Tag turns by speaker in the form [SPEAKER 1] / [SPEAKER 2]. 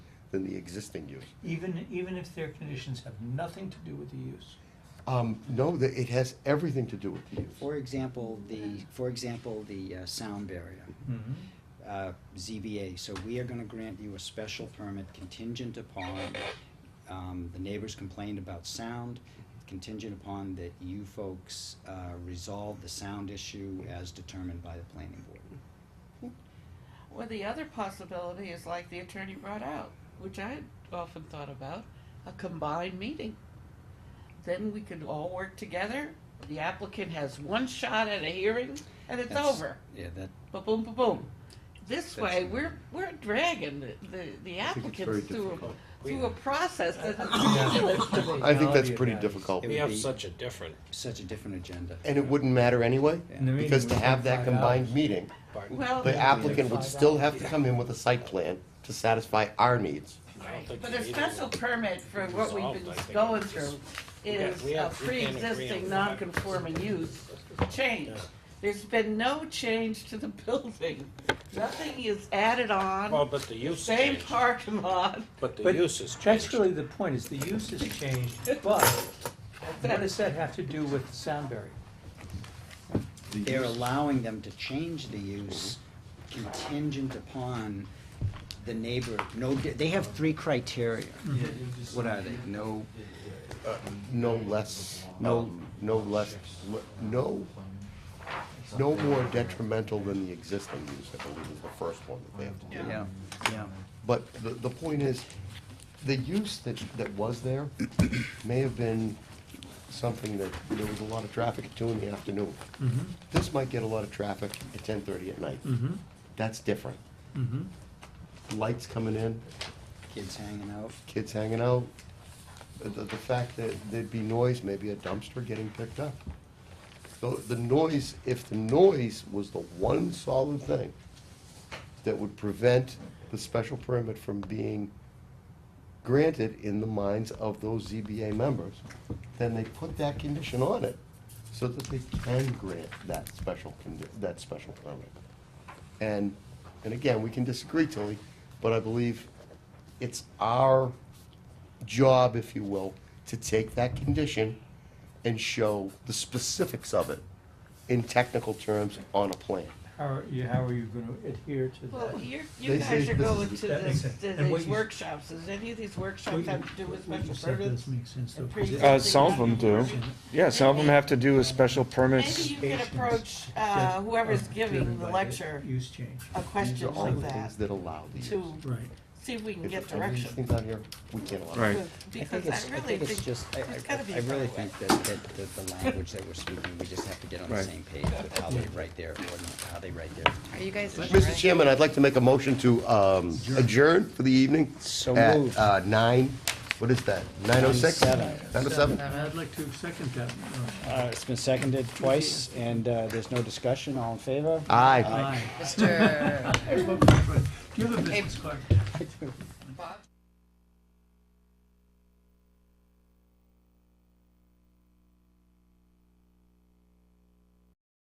[SPEAKER 1] than the existing use.
[SPEAKER 2] Even, even if their conditions have nothing to do with the use.
[SPEAKER 1] Um, no, the- it has everything to do with the use.
[SPEAKER 3] For example, the, for example, the uh, sound barrier,
[SPEAKER 4] Mm-hmm.
[SPEAKER 3] uh, ZBA, so we are gonna grant you a special permit contingent upon, um, the neighbors complained about sound, contingent upon that you folks, uh, resolve the sound issue as determined by the planning board.
[SPEAKER 5] Well, the other possibility is like the attorney brought out, which I had often thought about, a combined meeting. Then we could all work together. The applicant has one shot at a hearing and it's
[SPEAKER 3] That's-
[SPEAKER 5] over.
[SPEAKER 3] Yeah, that,
[SPEAKER 5] Ba boom, ba boom. This
[SPEAKER 3] That's-
[SPEAKER 5] way, we're, we're dragging the, the, the
[SPEAKER 1] I think it's very
[SPEAKER 5] applicants through,
[SPEAKER 1] difficult.
[SPEAKER 5] a- through a process that is ridiculous to me.
[SPEAKER 1] I think that's
[SPEAKER 2] Reality of
[SPEAKER 1] pretty
[SPEAKER 2] that.
[SPEAKER 1] difficult.
[SPEAKER 3] It
[SPEAKER 6] We
[SPEAKER 3] would
[SPEAKER 6] have
[SPEAKER 3] be-
[SPEAKER 6] such a different
[SPEAKER 3] such a different agenda.
[SPEAKER 1] And it wouldn't matter anyway,
[SPEAKER 3] Yeah.
[SPEAKER 2] And the meeting
[SPEAKER 1] because to
[SPEAKER 2] was
[SPEAKER 1] have that
[SPEAKER 2] five
[SPEAKER 1] combined
[SPEAKER 2] hours.
[SPEAKER 1] meeting,
[SPEAKER 6] part.
[SPEAKER 5] Well,
[SPEAKER 1] the applicant would
[SPEAKER 2] Five
[SPEAKER 1] still
[SPEAKER 2] hours.
[SPEAKER 1] have to come in with a site plan to satisfy our needs.
[SPEAKER 6] I don't think
[SPEAKER 5] But
[SPEAKER 6] the
[SPEAKER 5] a
[SPEAKER 6] meeting
[SPEAKER 5] special
[SPEAKER 6] will-
[SPEAKER 5] permit for what we've
[SPEAKER 6] resolved, I
[SPEAKER 5] been
[SPEAKER 6] think.
[SPEAKER 5] going through
[SPEAKER 6] We got-
[SPEAKER 5] is
[SPEAKER 6] we
[SPEAKER 5] a
[SPEAKER 6] have- we can't agree
[SPEAKER 5] pre-existing
[SPEAKER 6] on what.
[SPEAKER 5] non-conforming use change. There's been no change to the building. Nothing is added
[SPEAKER 6] Well,
[SPEAKER 5] on,
[SPEAKER 6] but the use
[SPEAKER 5] same
[SPEAKER 6] changed,
[SPEAKER 5] parking lot.
[SPEAKER 6] but the
[SPEAKER 2] But
[SPEAKER 6] use has
[SPEAKER 2] That's
[SPEAKER 6] changed.
[SPEAKER 2] really the point, is the use has changed, but what does that have to do with sound barrier?
[SPEAKER 3] They're allowing them to change the use contingent upon the neighbor, no, they have three criteria. What are they? No,
[SPEAKER 1] No less, no, no less, no, no more detrimental than the existing use, I believe is the first one that they have to do.
[SPEAKER 3] yeah, yeah.
[SPEAKER 1] But the, the point is, the use that, that was there may have been something that there was a lot of traffic at two in the afternoon.
[SPEAKER 6] Mm-hmm.
[SPEAKER 1] This might get a lot of traffic at ten thirty at night. That's different.
[SPEAKER 2] Mm-hmm.
[SPEAKER 1] Lights coming in,
[SPEAKER 3] Kids hanging out.
[SPEAKER 1] kids hanging out. The, the the fact that there'd be noise, maybe a dumpster getting picked up. So the noise, if the noise was the one solid thing that would prevent the special permit from being granted in the minds of those ZBA members, then they put that condition on it so that they can grant that special, condi- that special permit. And, and again, we can disagree, Tilly, but I believe it's our job, if you will, to take that condition and show the specifics of it in technical terms on a plan.
[SPEAKER 2] How are you, how are you gonna adhere to
[SPEAKER 5] Well,
[SPEAKER 2] that?
[SPEAKER 5] you're,
[SPEAKER 1] They
[SPEAKER 5] you guys
[SPEAKER 1] say
[SPEAKER 5] are
[SPEAKER 1] this is-
[SPEAKER 5] going to
[SPEAKER 2] that makes
[SPEAKER 5] this,
[SPEAKER 2] sense.
[SPEAKER 5] to
[SPEAKER 2] And what
[SPEAKER 5] these
[SPEAKER 2] you-
[SPEAKER 5] workshops. Does any of these workshops have to do with
[SPEAKER 2] What you
[SPEAKER 5] special
[SPEAKER 2] said
[SPEAKER 5] permits?
[SPEAKER 2] does make sense, though.
[SPEAKER 5] and pre-existing
[SPEAKER 4] Uh, some of them do.
[SPEAKER 5] non-conforming?
[SPEAKER 4] Yeah, some of them have to do with special
[SPEAKER 5] Maybe
[SPEAKER 4] permits.
[SPEAKER 5] you can approach, uh, whoever's giving the lecture
[SPEAKER 2] Use change.
[SPEAKER 5] a
[SPEAKER 1] These are
[SPEAKER 5] question
[SPEAKER 1] all
[SPEAKER 5] like
[SPEAKER 1] the
[SPEAKER 5] that
[SPEAKER 1] things that allow these.
[SPEAKER 5] to
[SPEAKER 2] Right.
[SPEAKER 5] see if we can
[SPEAKER 1] If
[SPEAKER 5] get
[SPEAKER 1] everything's
[SPEAKER 5] direction.
[SPEAKER 1] out here, we can't allow. it.
[SPEAKER 4] Right.
[SPEAKER 3] I think
[SPEAKER 5] Because
[SPEAKER 3] it's,
[SPEAKER 5] I
[SPEAKER 3] I
[SPEAKER 5] really
[SPEAKER 3] think it's
[SPEAKER 5] think,
[SPEAKER 3] just, I,
[SPEAKER 5] there's gotta be
[SPEAKER 3] I, I
[SPEAKER 5] a
[SPEAKER 3] really
[SPEAKER 5] better way.
[SPEAKER 3] think that, that, that the language that we're speaking, we just have to get on the
[SPEAKER 4] Right.
[SPEAKER 3] same page with how they write their ordinance, how they write their.
[SPEAKER 7] Are you guys?
[SPEAKER 1] Mr. Chairman, I'd like to make a motion to um, adjourn for the evening.
[SPEAKER 3] So
[SPEAKER 1] at,
[SPEAKER 3] moved.
[SPEAKER 1] uh, nine, what is that, nine oh six?
[SPEAKER 3] Seven.
[SPEAKER 1] Nine oh seven?
[SPEAKER 2] I'd like to second that. motion.
[SPEAKER 3] Uh, it's been seconded twice, and, uh, there's no discussion, all in favor?
[SPEAKER 1] Aye.
[SPEAKER 2] Aye.
[SPEAKER 7] Mr.
[SPEAKER 2] Do you have a business card?
[SPEAKER 5] Bob?